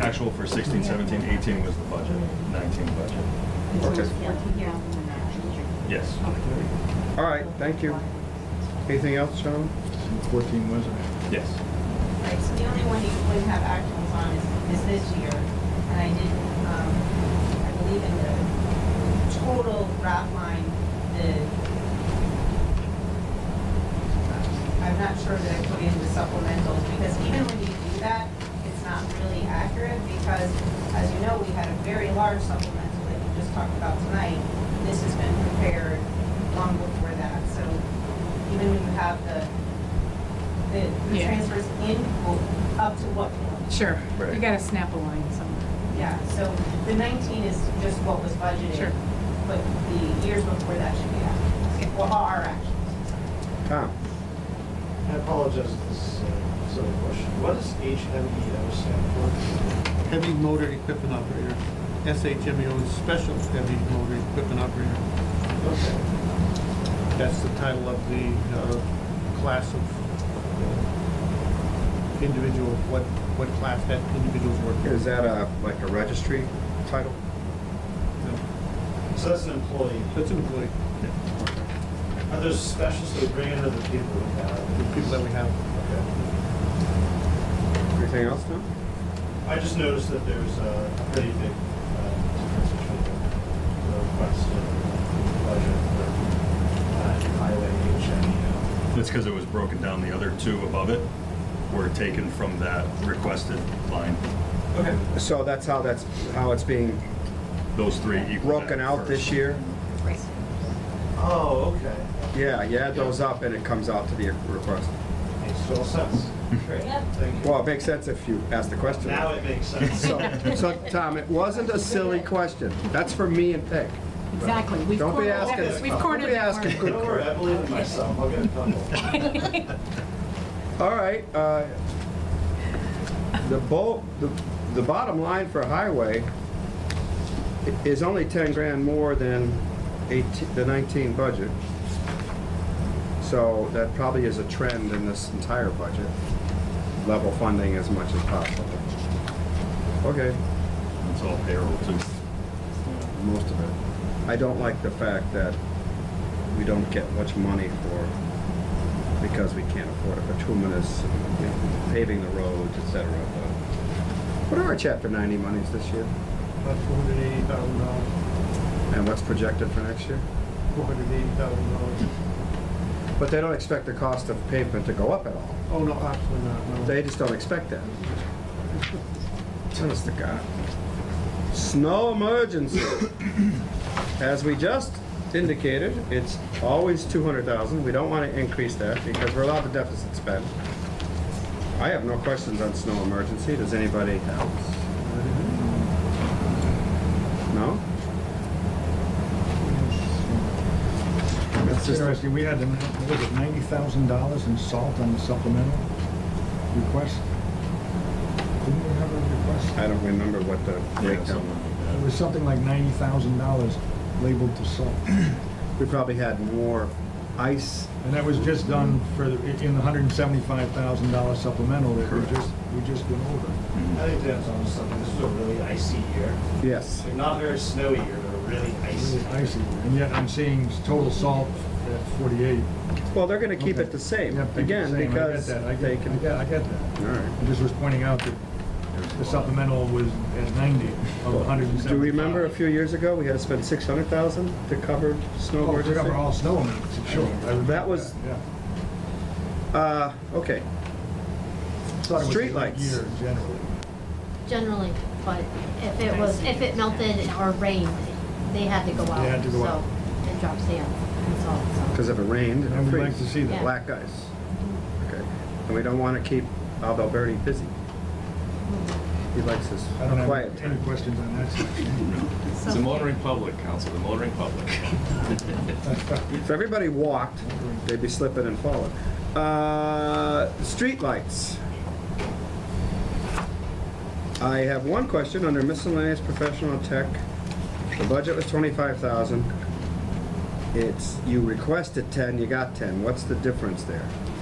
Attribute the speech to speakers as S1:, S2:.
S1: Actual for 16, 17, 18 was the budget, 19 budget.
S2: Okay.
S1: Yes.
S2: All right, thank you. Anything else, gentlemen?
S3: 14 was it?
S1: Yes.
S4: Right, so the only one you would have actuals on is, is this year. And I did, um, I believe in the total graph line, the, I'm not sure that I put in the supplementals, because even when you do that, it's not really accurate, because as you know, we had a very large supplemental that you just talked about tonight. This has been prepared long before that, so even when you have the the the
S5: Yeah.
S4: transfers in will- up to what point?
S5: Sure,
S1: Right.
S5: you gotta snap a line somewhere.
S4: Yeah, so the 19 is just what was budgeted.
S5: Sure.
S4: But the years before that should be
S5: Okay.
S4: actions, or are actions.
S2: Tom?
S6: I apologize if this is a silly question. What does HMEO stand for?
S7: heavy motor equipment operator. SHMEO is special heavy motor equipment operator.
S6: Okay.
S7: That's the title of the uh, class of uh, individual, what, what class that individual's working.
S2: Is that a, like a registry title?
S7: No,
S6: So that's an employee.
S7: That's an employee,
S6: Are there specials that we bring in other people we
S7: the
S6: have?
S7: people that we have.
S6: Okay.
S2: Anything else, Tom?
S6: I just noticed that there's a pretty big uh, difference between the requested budget for uh, highway E. HMEO.
S1: That's because it was broken down. The other two above it were taken from that requested line.
S6: Okay.
S2: So that's how that's, how it's being
S1: Those three equal.
S2: broken out this year?
S6: Oh, okay.
S2: Yeah, you add those up and it comes out to the request.
S6: Makes total sense. Great.
S4: Yep.
S6: Thank you.
S2: Well, it makes sense if you ask the question.
S6: Now it makes sense.
S2: So, so, Tom, it wasn't a silly question. That's for me and Peg.
S5: Exactly. We've
S2: Don't be
S5: cornered
S2: asking,
S5: that- We've
S2: don't
S5: cornered
S2: be
S5: that
S2: asking
S5: market.
S2: good
S6: Don't worry, I believe in myself. I'll get a couple.
S2: All right, uh, the bo, the, the bottom line for highway i- is only ten grand more than eighteen, the nineteen budget. So that probably is a trend in this entire budget, level funding as much as possible. Okay,
S1: It's all payroll too.
S2: most of it. I don't like the fact that we don't get much money for, because we can't afford it, bituminous, you know, paving the roads, et cetera. but- What are our chapter ninety monies this year,
S7: About four hundred eighty thousand dollars,
S2: and what's projected for next year?
S7: four hundred eighty thousand dollars.
S2: But they don't expect the cost of pavement to go up at all.
S7: Oh, no, absolutely not, no.
S2: They just don't expect that. Honest to God. Snow emergency. As we just indicated, it's always two hundred thousand. We don't want to increase that because we're allowed to deficit spend. I have no questions on snow emergency. Does anybody else? No?
S3: That's interesting, we had, what was it, $90,000 in salt on the supplemental request? Didn't we have a request?
S2: I don't remember what the
S1: Yeah,
S2: breakdown was.
S1: something
S3: It
S1: like
S3: was something like $90,000 labeled to salt.
S2: We probably had more ice.
S3: And that was just done for, the in the $175,000 supplemental that we
S1: Correct.
S3: just, we just went over.
S6: I think Dan's onto something. This is a really icy year.
S2: Yes.
S6: Like, not a very snowy year, but a really icy.
S3: Really icy, and yet I'm seeing total salt at 48.
S2: Well, they're gonna keep
S3: Okay.
S2: it the same,
S3: Yeah, keep it the
S2: again,
S3: same. I get
S2: because
S3: that. I get-
S2: they
S3: I
S2: can.
S3: get, I get that.
S2: All right.
S3: I just was pointing out that the supplemental was at 90 of 175.
S2: Do you remember a few years ago, we had to spend six hundred thousand to cover snow
S3: Oh, we
S2: emergency?
S3: remember all snow emergency, sure. I remember
S2: That was-
S3: yeah.
S2: Uh, okay,
S3: Thought it was a
S2: Street
S3: good
S2: lights.
S3: Year generally.
S8: Generally, but if it was, if it melted or rained, they had to go out.
S3: had to go
S8: so-
S3: out.
S8: And drop sand and salt, so.
S2: because if it rained, it
S3: And
S2: would
S3: we'd like to
S2: freeze.
S3: see that.
S8: Yeah.
S2: Black ice. Okay, and we don't want to keep Alberti busy. He likes his
S3: I don't
S2: quiet.
S3: have any questions on that section.
S5: So-
S9: It's a motoring public, council, the motoring public.
S2: If everybody walked, they'd be slipping and falling. Uh, Streetlights. I have one question under miscellaneous professional tech. The budget was twenty-five thousand. It's, you requested ten, you got ten. What's the difference there?